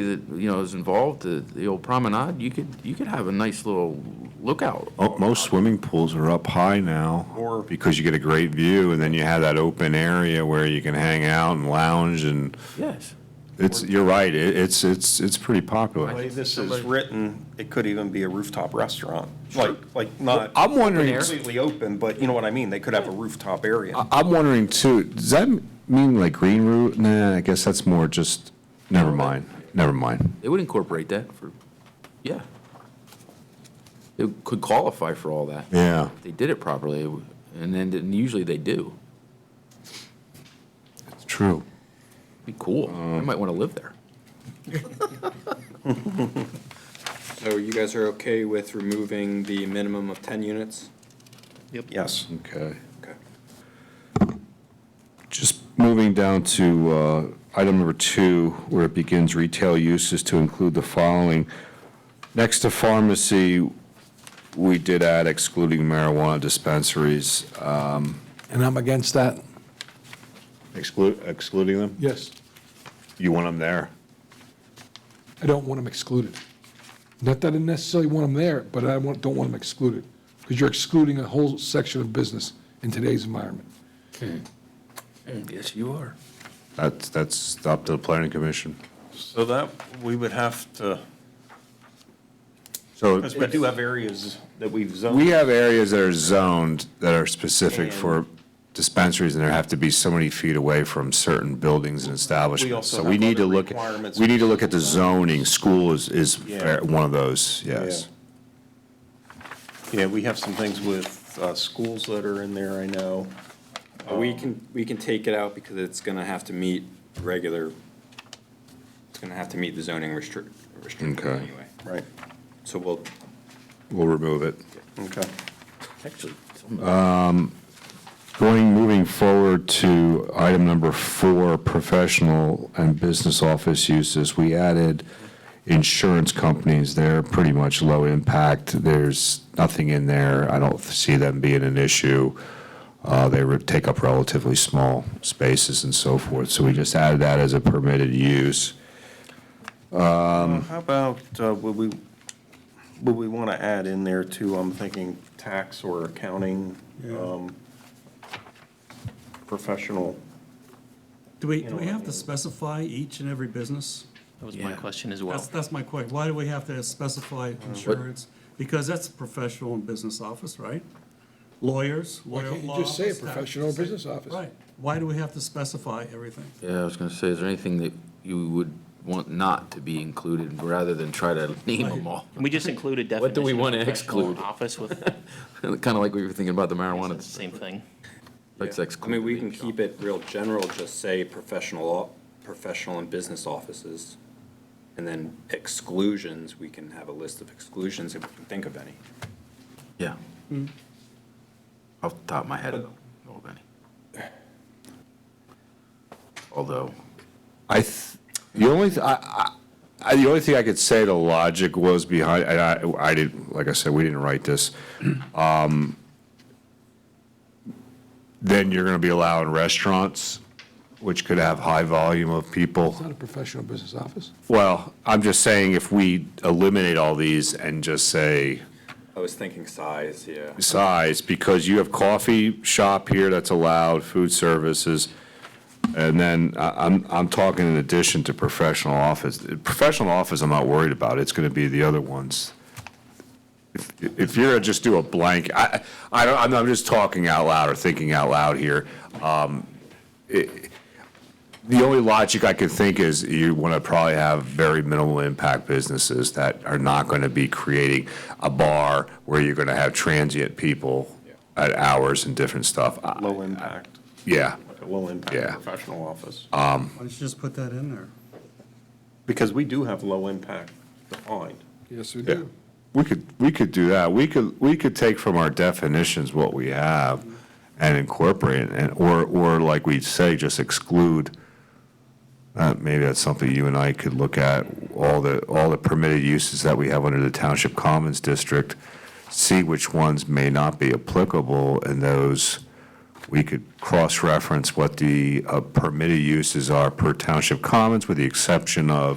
that, you know, is involved, the, the old promenade, you could, you could have a nice little lookout. Oh, Most swimming pools are up high now because you get a great view and then you have that open area where you can hang out and lounge and Yes. it's, you're right, it- it's, it's, it's pretty popular. I The way this is Somebody- written, it could even be a rooftop restaurant, like, like not I'm wondering, completely open, but you know what I mean? They could have a rooftop area. I'm wondering too, does that mean like green root? Nah, I guess that's more just, never mind, never mind. They would incorporate that for, yeah. It could qualify for all that. Yeah. If They did it properly, it would- and then, and usually they do. It's true. Be cool. I might want to live there. So Oh, you guys are okay with removing the minimum of ten units? Yes. Okay. Okay. Just moving down to uh, item number two, where it begins retail uses to include the following. Next to pharmacy, we did add excluding marijuana dispensaries. And I'm against that. Exclude, excluding them? Yes, You want them there? I don't want them excluded. Not that I necessarily want them there, but I want- don't want them excluded, because you're excluding a whole section of business in today's environment. Yes, you are. That's, that's up to the planning commission. So that, we would have to, So because we do have areas that we've zoned. we have areas that are zoned that are specific for dispensaries, and there have to be so many feet away from certain buildings and establishments. also So have we need to other look, requirements. we need to look at the zoning. School is, is Yeah. fair- one of those, yes. Yeah, we have some things with uh, schools that are in there, I know. We can, we can take it out because it's gonna have to meet regular, it's gonna have to meet the zoning restrict, restriction Okay. anyway. Right. So we'll, We'll remove it. Okay. Actually, it's almost- Going, moving forward to item number four, professional and business office uses. We added insurance companies. They're pretty much low impact. There's nothing in there. I don't see them being an issue. Uh, They would take up relatively small spaces and so forth. So we just added that as a permitted use. How about, uh, would we, would we want to add in there too, I'm thinking tax or accounting, um, professional? Do we, know do we what I have to mean. specify each and every business? That was my Yeah. question as well. That's, that's my question. Why do we have to Uh, specify insurance? Because that's a professional and business office, right? Lawyers, Why lawyer can't you law just say a office, tax- professional say- business office? Right. Why do we have to specify everything? Yeah, I was going to say, is there anything that you would want not to be included rather than try to name them all? Can we just include a definition? What do we of wanna professional exclude? Office with, Kind of like we were thinking about the it's marijuana. the same thing. Let's I exclude. mean, we the can vape keep it real general, just say professional, o- professional and business offices. And then exclusions, we can have a list of exclusions if we can think of any. shop. Yeah. Off the top of my head, I don't know of any. Although, I, th- the only, th- I, I, I- the only thing I could say the logic was behind, and I, I didn't, like I said, we didn't write this. Um, Then you're gonna be allowing restaurants, which could have high volume of people. It's not a professional business office. Well, I'm just saying if we eliminate all these and just say I was thinking size, yeah. size, because you have coffee shop here that's allowed, food services, and then I- I'm, I'm talking in addition to professional office. Professional office, I'm not worried about, it's gonna be the other ones. If- If you're gonna just do a blank, I, I don't, I'm- I'm just talking out loud or thinking out loud here. Um, it- The only logic I could think is you wanna probably have very minimal impact businesses that are not gonna be creating a bar where you're gonna have transient people at hours and different stuff. I- Low impact, Yeah. low Yeah. impact professional office. Why don't you just put that in there? Because we do have low impact defined. Yes, we Yeah, we could, we could do that. We could, we could take from our definitions what we have and incorporate it, and, or, or like we say, just exclude. Uh, maybe that's something you and I could look at, all the, all the permitted uses that we have under the Township Commons District, see which ones may not be applicable, and those, we could cross-reference what the uh, permitted uses are per Township Commons, with the exception of